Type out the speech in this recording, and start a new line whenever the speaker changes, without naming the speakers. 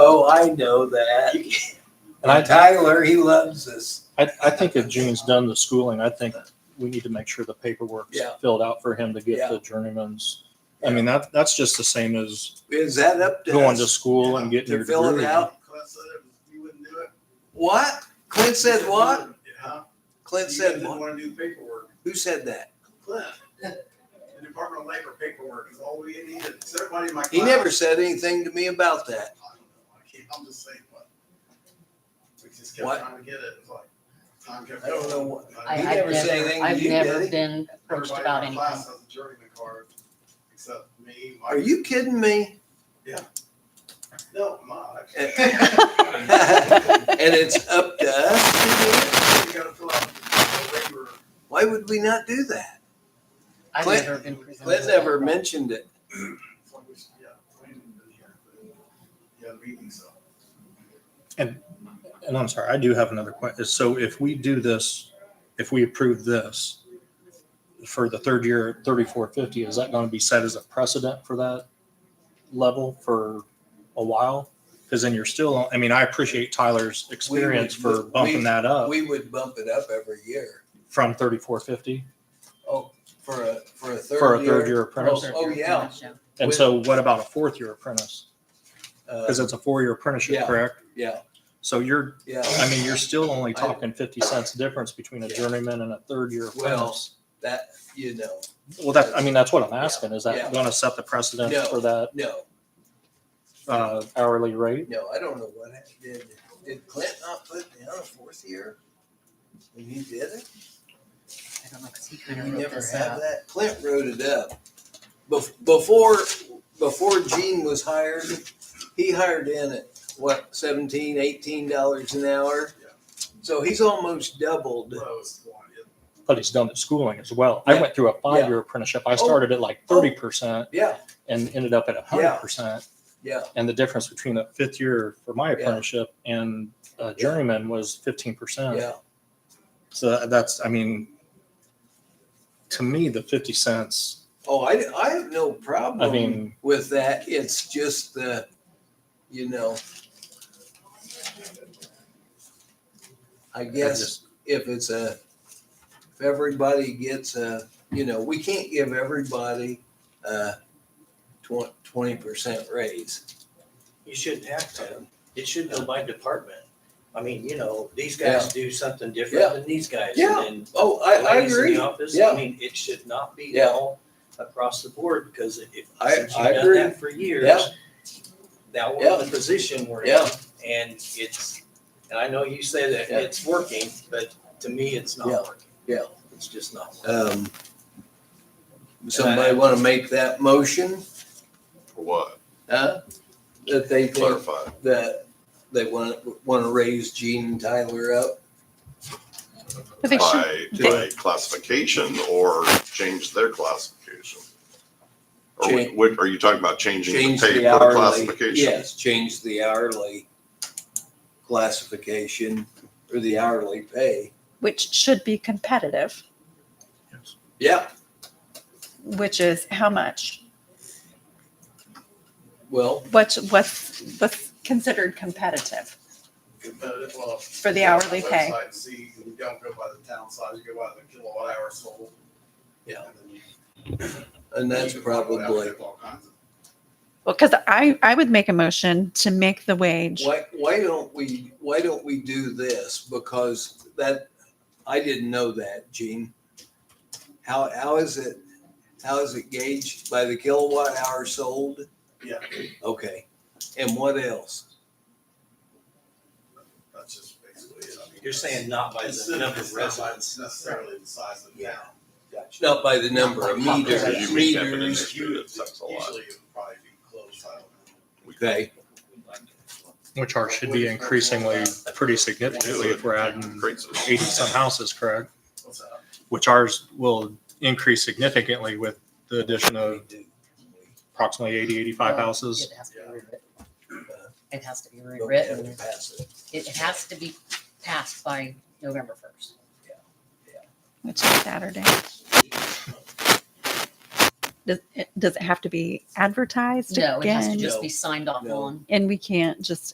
Oh, I know that.
And I,
Tyler, he loves this.
I, I think if June's done the schooling, I think we need to make sure the paperwork's
Yeah.
filled out for him to get the journeyman's. I mean, that, that's just the same as
Is that up to
going to
us
school and getting
to
your
fill it
degree.
out?
Clint said it was- you wouldn't do it.
What? Clint said what?
Huh?
Clint
You
said
didn't
what?
wanna do the paperwork.
Who said that?
Clint, the Department of Labor paperwork is all we needed. So Everybody in my class.
He never said anything to me about that.
I don't know. I can't, I'm just saying what. We just kept
What?
trying to get it. It was like, time kept.
I don't know
going.
what-
Like,
I,
You
everybody
never
I've
said
never,
anything to
I've
you, did
never
he?
been approached
in
about
my
anything.
Class has a journeyman card, except me. Mike.
Are you kidding me?
No, mine.
Eh.
You
And it's up to us to do it?
gotta fill out the labor.
Why would we not do that?
I've
Clint-
never been presented.
Clint
with
never
that.
mentioned it.
It's like we should- yeah, we haven't been here, but Yeah, meeting, so.
And I'm sorry, I do have another question. So if we do this, if we approve this for the third year, thirty-four fifty, is that going to be set as a precedent for that level for a while? Because then you're still, I mean, I appreciate Tyler's experience for bumping that up
We would bump it up every year
from thirty-four fifty.
for a, for a third year.
For a third year apprentice.
Oh,
E
yeah.
And so what about a fourth year apprentice?
Uh,
Because it's a four-year apprenticeship,
Yeah.
correct?
Yeah,
So you're,
yeah.
I mean, you're still only
I-
talking fifty cents difference between a
Yeah.
journeyman and a third-year
Well,
apprentice.
That, you know,
Well, that, I mean, that's what I'm
Yeah,
asking. Is
yeah.
that going to set the precedent
No.
for that
no,
uh, hourly rate?
no, I don't know what, hap- did, did Clint not put down a fourth year? When he did it?
I don't know, 'cause he
We
kind of wrote
never
this
have
up.
that. Clint wrote it up. Bef- Before, before Gene was hired, he hired in at, what, seventeen, eighteen dollars an hour?
Yeah.
So he's almost doubled.
Lowest one, yeah.
But he's done at schooling as well. I
Yeah.
went through a five-year apprenticeship. I started at like
Oh.
thirty percent
Yeah,
and ended up at a
Yeah.
hundred percent.
yeah,
And the difference between a fifth year for my
Yeah.
apprenticeship and a journeyman was fifteen percent.
yeah.
So that's, I mean, to me, the fifty cents,
Oh, I, I have no
I
problem
mean,
with that. It's just the, you know. I
I
guess.
just-
if it's a, if everybody gets a, you know, we can't give everybody a twenty percent raise.
You shouldn't have to. It should go by department. I mean, you know, these guys do something
Yeah.
different than these guys.
Yeah.
And
Oh,
then
I, I
ladies in
agree.
the office,
Yeah.
I mean, it should not be
Yeah.
all across the board because if, since
I-
you've
I
done
agree.
that for years,
Yeah.
now we're
Yeah.
in the position we're in.
Yeah.
And it's, and I know you say that
Yeah.
it's working, but to me, it's not
Yeah.
working.
Yeah.
It's just not. working.
Um, somebody want to make that motion?
For what?
Huh? That they think
Clarify.
that they want, to want to raise Gene and Tyler up?
But they should,
By, by classification or change their classification? Or
Change-
what, are you talking about changing
Change
the pay
the
per
hourly.
classification?
Yes, change the hourly classification or the hourly pay.
which should be competitive,
Yeah,
which is how much?
well,
What's what's what's considered competitive?
Competitive, well.
For the hourly pay.
Website, See, you don't go by the town size, you go by the kilowatt hour sold.
Yeah.
And then you-
and that's
you can find out
probably.
if all kinds of-
Well, because I I would make a motion to make the wage.
Why, why don't we, why don't we do this? Because that, I didn't know that, Gene. How, how is it, how is it gauged by the kilowatt hour sold?
Yeah,
Okay, and what else?
that's just basically it. I mean,
You're saying not by
It's
the
not
number
it's
of
not by
residents.
necessarily the size of the
Yeah.
town.
Not by the number of meters,
Because you make that an
meters,
issue, it sucks a lot.
Usually it would probably be close, I don't know.
okay,
which are, should be increasingly pretty significantly if we're adding
Creates a-
eighty some houses, correct?
What's that?
which ours will increase significantly with the addition of approximately 80, 85
Well,
houses.
it has to be
Yeah.
rewritten.
Uh,
It has to be
but we
rewritten.
haven't passed it.
It has to be passed by November first.
Which is Saturday. Does it, does it have to be advertised
No, it has to
again?
just be signed off
No.
on.
And we can't just